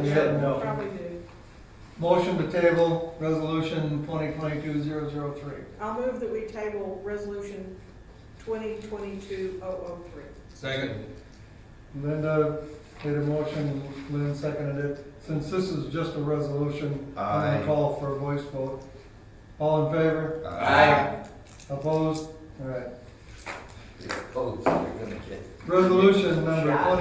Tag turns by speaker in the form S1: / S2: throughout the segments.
S1: We had no.
S2: Probably do.
S1: Motion to table resolution twenty twenty-two zero zero three.
S2: I'll move that we table resolution twenty twenty-two oh oh three.
S3: Second.
S1: Linda made a motion, Lynn seconded it. Since this is just a resolution, I'm
S4: Aye.
S1: gonna call for a voice vote. All in favor?
S4: Aye.
S1: Opposed? All right.
S4: Opposed, we're gonna get.
S1: Resolution number
S4: Shot.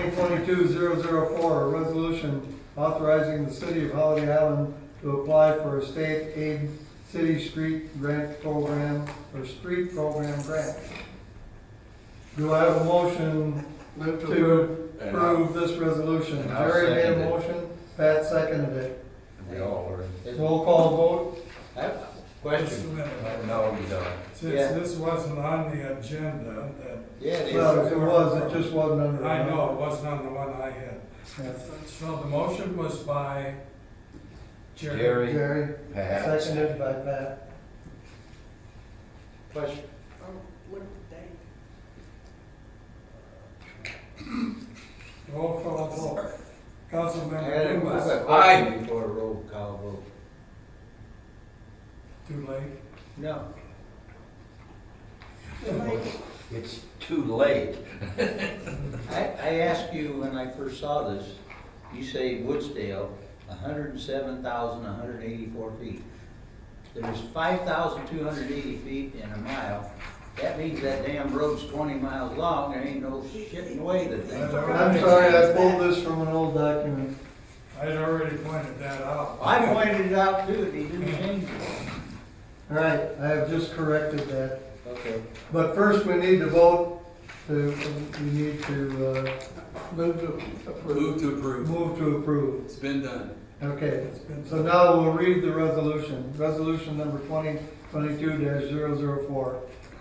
S1: 2022-004, a resolution authorizing the city of Holiday Island to apply for a state aid city street grant program, or street program grant. Do I have a motion to
S4: uh,
S3: And I-
S1: approve this resolution?
S4: And I'll
S1: Jerry made
S4: second
S1: a
S4: it.
S1: motion, Pat seconded it.
S4: We all are.
S1: Roll call vote?
S4: I have a
S5: Just a
S4: Question?
S5: minute.
S4: No, we don't.
S5: Since
S4: Yeah.
S5: this wasn't on the agenda, that,
S4: Yeah, it
S1: Well,
S4: is.
S1: if it was, it just wasn't under.
S5: I know it wasn't on the one I had.
S1: Yeah.
S5: So the motion was by Jerry.
S4: Jerry,
S1: Jerry,
S4: Pat.
S1: seconded by Pat.
S4: Question?
S2: Oh, look at the date.
S5: Roll call vote.
S4: I had
S5: Councilmember
S4: a
S5: Dumas.
S4: question Aye. before a roll call vote.
S5: Too late.
S4: No.
S2: Like,
S6: It's too late.
S4: I, I asked you when I first saw this, you say Woodsdale, hundred and seven thousand, hundred and eighty-four feet. There's five thousand two hundred eighty feet in a mile. That means that damn road's twenty miles long, there ain't no shit in the way that thing.
S1: I'm sorry, I pulled this from an old document.
S5: I'd already pointed that out.
S4: I pointed it out too, and he didn't change it.
S1: All right, I have just corrected that.
S4: Okay.
S1: But first, we need to vote, to, we need to, uh. Move to
S3: Move to approve.
S1: Move to approve,
S3: It's been done.
S1: okay.
S5: It's been-
S1: So now we'll read the resolution, resolution number twenty twenty-two 4 A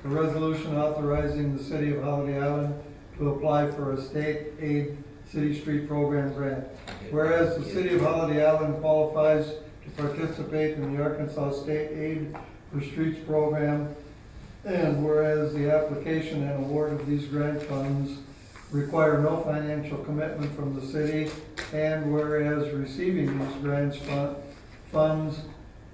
S1: resolution authorizing the city of Holiday Island to apply for a state aid city street program grant. Whereas the city of Holiday Island qualifies to participate in the Arkansas State Aid for Streets Program, and whereas the application and award of these grant funds require no financial commitment from the city, and whereas receiving these grants fun- funds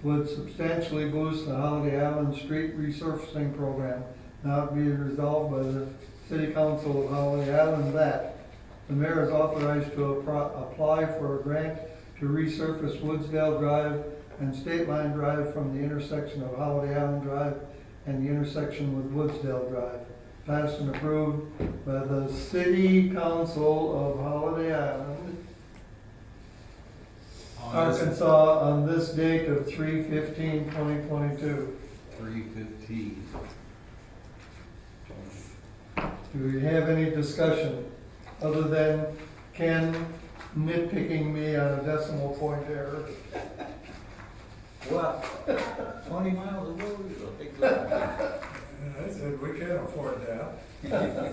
S1: would substantially boost the Holiday Island Street Resurfacing Program, now be resolved by the City Council of Holiday Island that the mayor is authorized to appro- apply for a grant to resurface Woodsdale Drive and State Line Drive from the intersection of Holiday Island Drive and the intersection with Woodsdale Drive. Passed and approved by the City Council of Holiday Island, Arkansas, on this date of 3-15-2022.
S3: Three fifteen.
S1: Do we have any discussion other than Ken nitpicking me on a decimal point error?
S4: What? Twenty miles of road is a big lot.
S5: And I said, we can't afford that.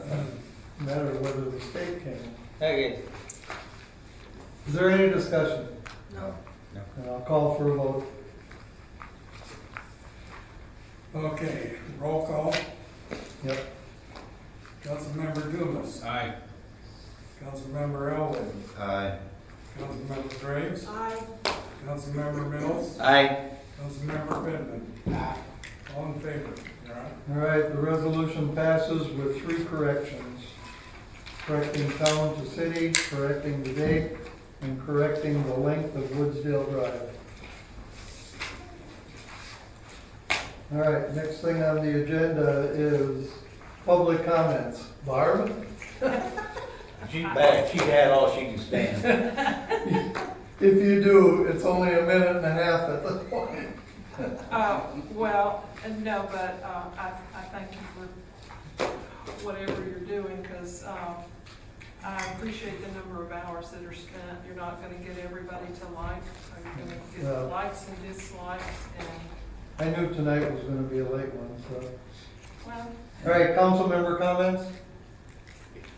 S1: Matter whether the state can.
S4: Okay.
S1: Is there any discussion?
S2: No,
S1: And I'll call for a vote.
S5: Okay, roll call.
S1: Yep.
S5: Councilmember Dumas.
S3: Aye.
S5: Councilmember Elwin.
S4: Aye.
S5: Councilmember Graves.
S2: I,
S5: Councilmember Mills.
S4: Aye.
S5: Councilmember Benton. All in favor, Your Honor.
S1: All right, the resolution passes with three corrections. Correcting town to city, correcting the date, and correcting the length of Woodsdale Drive. All right, next thing on the agenda is public comments. Barb?
S4: She back, she had all she can stand.
S1: If you do, it's only a minute and a half at this point.
S2: uh, well, uh, no, but, uh, I, I thank you for whatever you're doing, cause, um, I appreciate the number of hours that are spent. You're not gonna get everybody to like, you're gonna get the
S1: No.
S2: likes and dislikes and,
S1: I knew tonight was gonna be a late one, so.
S2: well,
S1: All right, council member comments?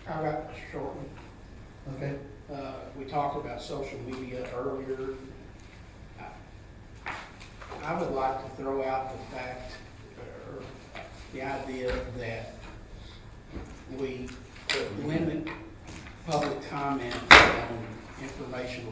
S7: How about shortly?
S1: Okay.
S7: Uh, we talked about social media earlier. I- I would like to throw out the fact, or the idea that we limit public comment on informational